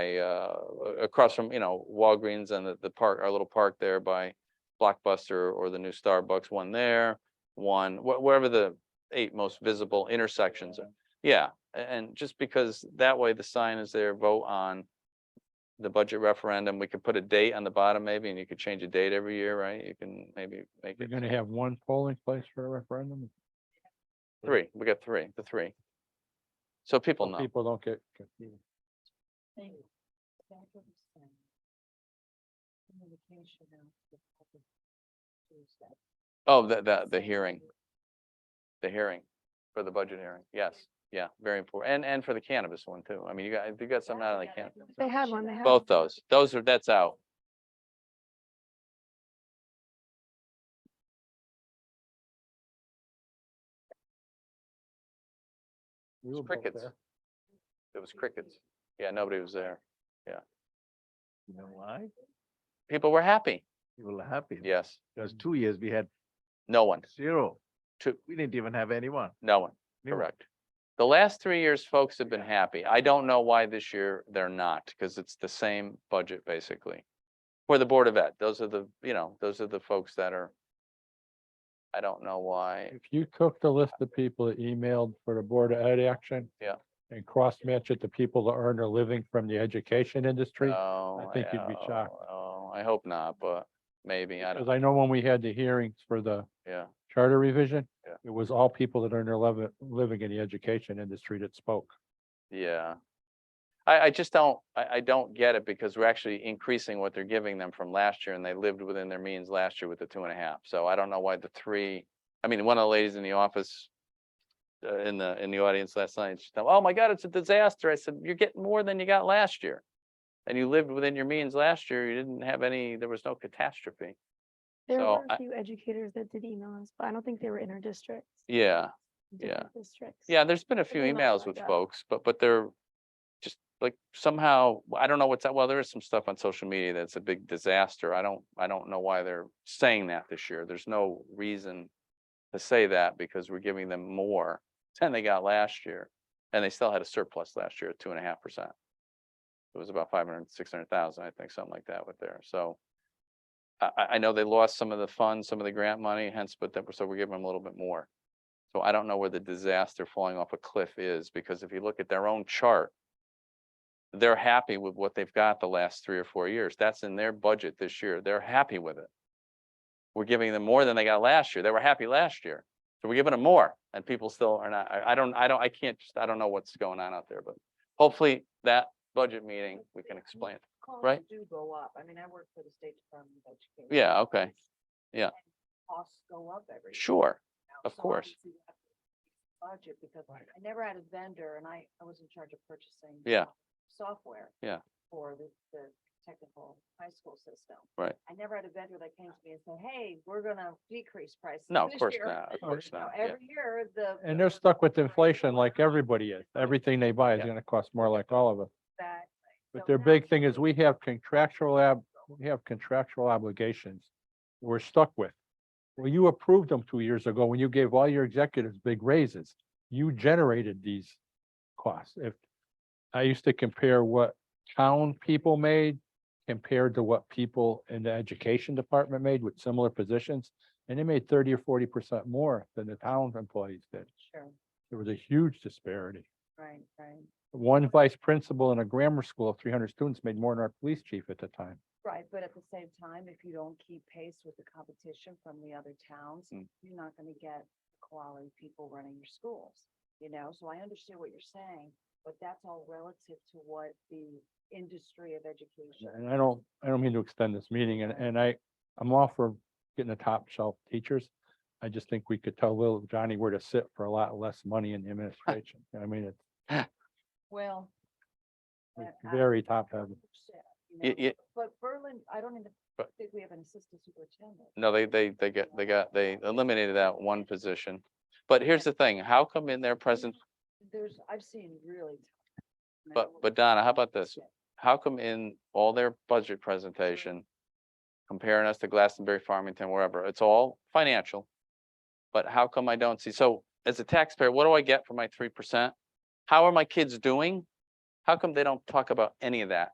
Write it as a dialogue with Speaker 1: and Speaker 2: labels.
Speaker 1: I, uh, a- across from, you know, Walgreens and the, the park, our little park there by Blockbuster or the new Starbucks, one there, one, wh- wherever the eight most visible intersections are. Yeah, a- and just because that way the sign is there, vote on the budget referendum. We could put a date on the bottom maybe, and you could change a date every year, right? You can maybe make
Speaker 2: You're
Speaker 1: it
Speaker 2: gonna have one polling place for a referendum?
Speaker 1: three. We got three, the three. So people
Speaker 2: so
Speaker 1: know.
Speaker 2: People don't get confused.
Speaker 1: Oh, the, the, the hearing, the hearing for the budget hearing. Yes, yeah, very important. And, and for the cannabis one too. I mean, you got, you got some out of the can.
Speaker 3: They had one, they had.
Speaker 1: Both those, those are, that's out.
Speaker 2: We were both
Speaker 1: crickets.
Speaker 2: there.
Speaker 1: It was crickets. Yeah, nobody was there.
Speaker 4: You know why?
Speaker 1: People were happy.
Speaker 4: People are happy.
Speaker 1: Yes,
Speaker 4: Because two years we had
Speaker 1: no one,
Speaker 4: zero.
Speaker 1: Two.
Speaker 4: We didn't even have anyone.
Speaker 1: no one,
Speaker 4: Anyone.
Speaker 1: correct. The last three years, folks have been happy. I don't know why this year they're not, because it's the same budget basically. For the Board of Ed, those are the, you know, those are the folks that are. I don't know why.
Speaker 2: If you took the list of people that emailed for the Board of Ed action.
Speaker 1: Yeah.
Speaker 2: And cross-match it to people that earn a living from the education industry.
Speaker 1: Oh,
Speaker 2: think you'd be
Speaker 1: yeah,
Speaker 2: shocked.
Speaker 1: Oh, I hope not, but maybe, I
Speaker 2: Because
Speaker 1: don't,
Speaker 2: I know when we had the hearings for the
Speaker 1: yeah,
Speaker 2: charter revision.
Speaker 1: Yeah.
Speaker 2: It was all people that earn their living, living in the education industry that spoke.
Speaker 1: yeah. I, I just don't, I, I don't get it because we're actually increasing what they're giving them from last year and they lived within their means last year with the two and a half. So I don't know why the three, I mean, one of the ladies in the office uh, in the, in the audience last night, she said, oh my God, it's a disaster. I said, you're getting more than you got last year. And you lived within your means last year. You didn't have any, there was no catastrophe.
Speaker 3: There
Speaker 1: So
Speaker 3: were
Speaker 1: I-
Speaker 3: a few educators that did email us, but I don't think they were in our district.
Speaker 1: Yeah. Yeah.
Speaker 3: different Districts.
Speaker 1: Yeah, there's been a few
Speaker 3: emails
Speaker 1: emails
Speaker 3: like
Speaker 1: with
Speaker 3: that.
Speaker 1: folks, but, but they're just like somehow, I don't know what's that, well, there is some stuff on social media that's a big disaster. I don't, I don't know why they're saying that this year. There's no reason to say that because we're giving them more than they got last year. And they still had a surplus last year at two and a half percent. It was about five hundred, six hundred thousand, I think, something like that with there, so. I, I, I know they lost some of the funds, some of the grant money, hence, but that, so we're giving them a little bit more. So I don't know where the disaster falling off a cliff is, because if you look at their own chart, they're happy with what they've got the last three or four years. That's in their budget this year. They're happy with it. We're giving them more than they got last year. They were happy last year. So we're giving them more and people still are not, I, I don't, I don't, I can't, just I don't know what's going on out there, but hopefully that budget meeting, we can explain. it.
Speaker 5: costs
Speaker 1: right?
Speaker 5: Do go up. I mean, I work for the State Department of Education.
Speaker 1: Yeah, okay. Yeah.
Speaker 5: and Costs go up every. year
Speaker 1: Sure,
Speaker 5: now,
Speaker 1: of
Speaker 5: so
Speaker 1: course.
Speaker 5: obviously you have to Budget because I never had a vendor and I, I was in charge of purchasing.
Speaker 1: Yeah.
Speaker 5: Software.
Speaker 1: Yeah.
Speaker 5: For the, the technical high school system.
Speaker 1: Right.
Speaker 5: I never had a vendor that came to me and said, hey, we're gonna decrease prices.
Speaker 1: No, of
Speaker 5: this
Speaker 1: course
Speaker 5: year."
Speaker 1: not, of
Speaker 5: You
Speaker 1: course
Speaker 5: know,
Speaker 1: not, yeah.
Speaker 5: Every year, the.
Speaker 2: And they're
Speaker 5: the
Speaker 2: stuck with
Speaker 5: prices
Speaker 2: inflation
Speaker 5: go
Speaker 2: like
Speaker 5: up.
Speaker 2: everything is. Everything they buy is
Speaker 1: Yeah.
Speaker 2: gonna cost more like all of us.
Speaker 5: Exactly.
Speaker 2: But
Speaker 5: So
Speaker 2: their
Speaker 5: now
Speaker 2: big thing is we have contractual ab, we have contractual obligations we're stuck with. Well, you approved them two years ago when you gave all your executives big raises. You generated these costs. If I used to compare what town people made compared to what people in the education department made with similar positions, and they made thirty or forty percent more than the town employees did.
Speaker 5: Sure,
Speaker 2: There was a huge disparity
Speaker 5: right, right,
Speaker 2: one vice principal in a grammar school of three hundred students made more than our police chief at the time.
Speaker 5: right. But at the same time, if you don't keep pace with the competition from the other towns,
Speaker 1: Mm.
Speaker 5: you're not gonna get quality people running your schools. You know, so I understand what you're saying, but that's all relative to what the industry of education.
Speaker 2: And I don't, I don't mean to extend this meeting and, and I, I'm all for getting the top shelf teachers. I just think we could tell little Johnny where to sit for a lot less money in the administration. I mean, it's-
Speaker 5: Well.
Speaker 2: it's
Speaker 5: I- I-
Speaker 2: very top heavy.
Speaker 5: you
Speaker 1: Y-
Speaker 5: know,
Speaker 1: y-
Speaker 5: But Berlin, I don't even
Speaker 1: But-
Speaker 5: think we have an assistant superintendent.
Speaker 1: No, they, they, they got, they got, they eliminated that one position. But here's the thing, how come in their present,
Speaker 5: There's, I've seen really. tough- and I
Speaker 1: But-
Speaker 5: don't-
Speaker 1: but Donna, how about this? how come in all their budget presentation, comparing us to Glastonbury, Farmington, wherever, it's all financial? But how come I don't see, so as a taxpayer, what do I get for my three percent? How are my kids doing? How come they don't talk about any of that?